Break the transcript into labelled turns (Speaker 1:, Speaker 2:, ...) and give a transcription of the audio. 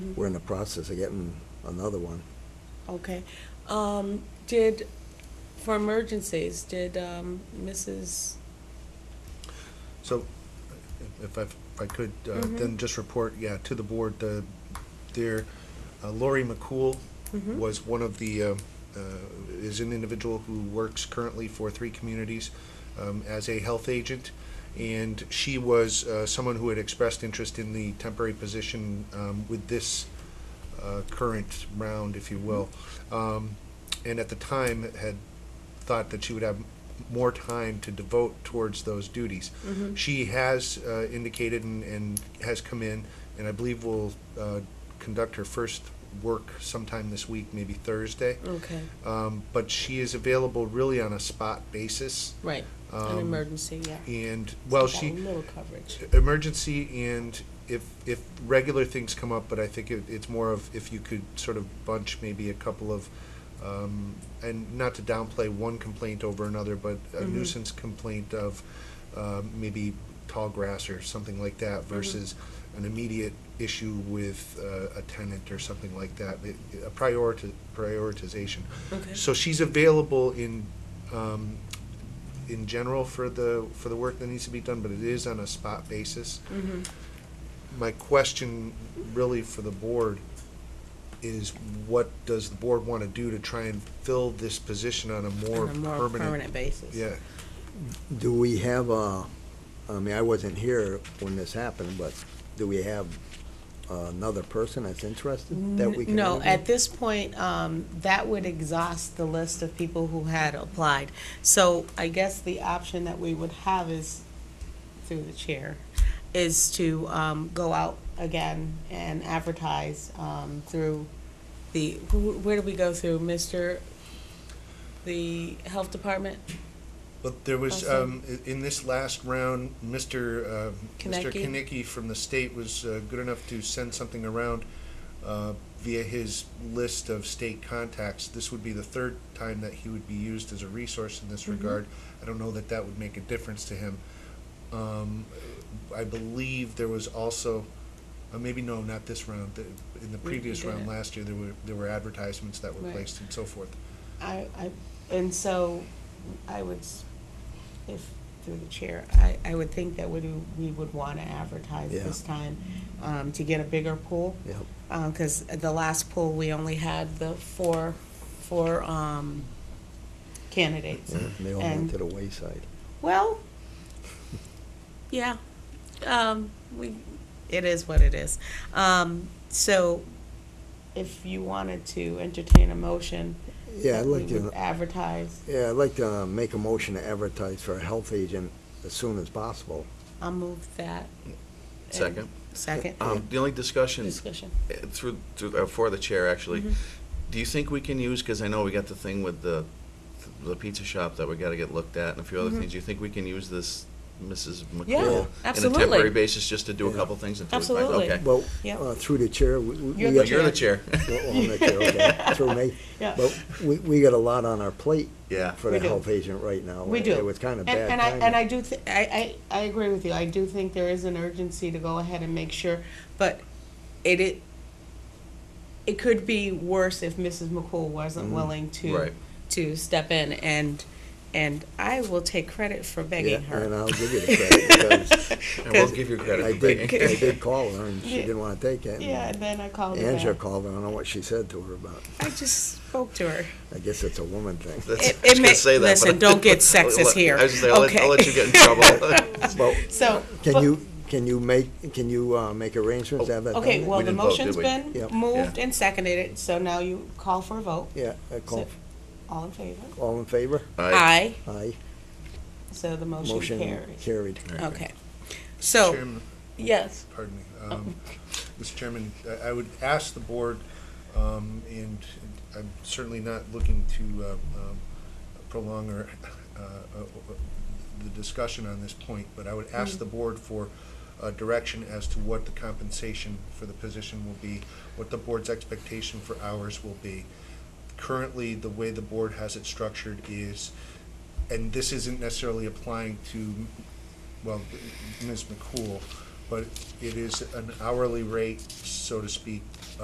Speaker 1: we're in the process of getting another one.
Speaker 2: Okay. Um, did, for emergencies, did, um, Mrs.,
Speaker 3: So, if I, if I could, uh, then just report, yeah, to the board, the, there, uh, Lori McCool was one of the, uh, uh, is an individual who works currently for three communities um, as a health agent. And she was uh, someone who had expressed interest in the temporary position um, with this uh, current round, if you will. Um, and at the time had thought that she would have more time to devote towards those duties. She has uh, indicated and, and has come in, and I believe will uh, conduct her first work sometime this week, maybe Thursday.
Speaker 2: okay,
Speaker 3: Um, but she is available really on a spot basis,
Speaker 2: right, an
Speaker 3: Um,
Speaker 2: emergency, yeah.
Speaker 3: and well,
Speaker 2: Got
Speaker 3: she
Speaker 2: A little coverage.
Speaker 3: emergency and if if regular things come up, but I think it, it's more of if you could sort of bunch maybe a couple of, um, and not to downplay one complaint over another, but a
Speaker 2: Mhm.
Speaker 3: nuisance complaint of um, maybe tall grass or something like that versus an immediate issue with uh, a tenant or something like that. It, a priority prioritization.
Speaker 2: Okay.
Speaker 3: So she's available in, um, in general for the, for the work that needs to be done, but it is on a spot basis.
Speaker 2: Mhm.
Speaker 3: My question really for the board is what does the board want to do to try and fill this position on a more
Speaker 2: On a more
Speaker 3: permanent?
Speaker 2: permanent basis.
Speaker 3: Yeah,
Speaker 1: Do we have a, I mean, I wasn't here when this happened, but do we have another person that's interested that we can
Speaker 2: No,
Speaker 1: interview?
Speaker 2: at this point, um, that would exhaust the list of people who had applied. So I guess the option that we would have is, through the chair, is to, um, go out again and advertise, um, through the, who, where do we go through, Mr., the health department?
Speaker 3: but there was, um,
Speaker 2: Awesome.
Speaker 3: i- in this last round, Mr., um, Mr.
Speaker 2: Konecki?
Speaker 3: Kinnicky from the state was uh, good enough to send something around uh, via his list of state contacts. This would be the third time that he would be used as a resource in this
Speaker 2: Mm-hmm.
Speaker 3: regard. I don't know that that would make a difference to him. Um, I believe there was also, uh, maybe no, not this round. The, in the
Speaker 2: We- we
Speaker 3: previous
Speaker 2: did
Speaker 3: round
Speaker 2: it.
Speaker 3: last year, there were there were advertisements that were
Speaker 2: Right.
Speaker 3: placed and so forth.
Speaker 2: I, I, and so I would, s- if, through the chair, I, I would think that we, do- we would want to advertise
Speaker 1: Yeah.
Speaker 2: this time um, to get a bigger pool.
Speaker 1: Yep.
Speaker 2: Because the last pool, we only had the four, four um, candidates.
Speaker 1: Yeah, They all
Speaker 2: And-
Speaker 1: went to the wayside.
Speaker 2: Well, yeah, um, we, it is what it is. Um, So if you wanted to entertain a motion.
Speaker 1: Yeah, I'd
Speaker 2: that we
Speaker 1: like to-
Speaker 2: would Advertise.
Speaker 1: Yeah, I'd like to make a motion to advertise for a health agent as soon as possible.
Speaker 2: I'll move that.
Speaker 4: Second.
Speaker 2: Second.
Speaker 4: Um, the only discussion
Speaker 2: Discussion.
Speaker 4: uh, through, through uh, for the chair actually.
Speaker 2: Mhm.
Speaker 4: Do you think we can use? Because I know we got the thing with the the pizza shop that we got to get looked at and a few other
Speaker 2: Mhm.
Speaker 4: things. Do you think we can use this, Mrs. McCool,
Speaker 2: Yeah,
Speaker 4: in a
Speaker 2: absolutely.
Speaker 4: temporary basis just to do a
Speaker 1: Yeah.
Speaker 4: couple things until we
Speaker 2: Absolutely.
Speaker 4: find okay.
Speaker 1: Well,
Speaker 2: Yep.
Speaker 1: uh, through the chair, we. we-
Speaker 2: You're
Speaker 1: we
Speaker 2: the
Speaker 4: Well,
Speaker 1: got-
Speaker 4: you're the chair.
Speaker 1: Well, I'm the chair, okay, through me.
Speaker 2: Yeah.
Speaker 1: But we, we got a lot on our plate
Speaker 4: yeah.
Speaker 1: for
Speaker 2: We
Speaker 1: the
Speaker 2: do.
Speaker 1: health agent right now.
Speaker 2: We
Speaker 1: It-
Speaker 2: do.
Speaker 1: It was kind of
Speaker 2: And-
Speaker 1: bad
Speaker 2: And I,
Speaker 1: timing.
Speaker 2: and I do, thi- I, I, I agree with you. I do think there is an urgency to go ahead and make sure, but it, it, it could be worse if Mrs. McCool wasn't willing to,
Speaker 4: Right.
Speaker 2: to step in and, and I will take credit for begging
Speaker 1: Yeah, And
Speaker 2: her.
Speaker 1: I'll give you the credit, because
Speaker 4: And we'll give you credit.
Speaker 1: I
Speaker 4: for
Speaker 1: did,
Speaker 4: being-
Speaker 1: I did call her, and she
Speaker 2: Yeah.
Speaker 1: didn't want to take it. and
Speaker 2: Yeah, and then I called her
Speaker 1: Angela
Speaker 2: back.
Speaker 1: called her, I don't know what she said to her, but
Speaker 2: I just spoke to her.
Speaker 1: I guess it's a woman thing.
Speaker 4: That's-
Speaker 2: It-
Speaker 4: I was
Speaker 2: it
Speaker 4: gonna
Speaker 2: may-
Speaker 4: say that, but
Speaker 2: listen,
Speaker 4: I-
Speaker 2: don't get
Speaker 4: I'll
Speaker 2: sexist
Speaker 4: let-
Speaker 2: here.
Speaker 4: I was gonna say, I'll, let, I'll let you get in trouble.
Speaker 1: Well,
Speaker 2: So.
Speaker 1: can
Speaker 2: but-
Speaker 1: you, can you make, can you uh, make arrangements to have that done?
Speaker 2: Okay, well,
Speaker 4: We
Speaker 2: the
Speaker 4: didn't vote,
Speaker 2: motion's
Speaker 4: did
Speaker 2: been
Speaker 4: we?
Speaker 1: Yep.
Speaker 2: moved
Speaker 4: Yeah.
Speaker 2: and seconded, so now you call for a vote.
Speaker 1: Yeah, I call,
Speaker 2: All in favor?
Speaker 1: all in favor?
Speaker 4: Aye.
Speaker 2: Aye,
Speaker 1: Aye.
Speaker 2: so the motion
Speaker 1: Motion
Speaker 2: carries.
Speaker 1: carried.
Speaker 2: Okay. So,
Speaker 3: Chairman,
Speaker 2: yes,
Speaker 3: pardon me. Um, Mr. Chairman, I- I would ask the board, um, and I'm certainly not looking to um, um, prolong or uh, uh, the discussion on this point, but I would ask the board for uh, direction as to what the compensation for the position will be, what the board's expectation for hours will be. Currently, the way the board has it structured is, and this isn't necessarily applying to, well, Ms. McCool, but it is an hourly rate, so to speak,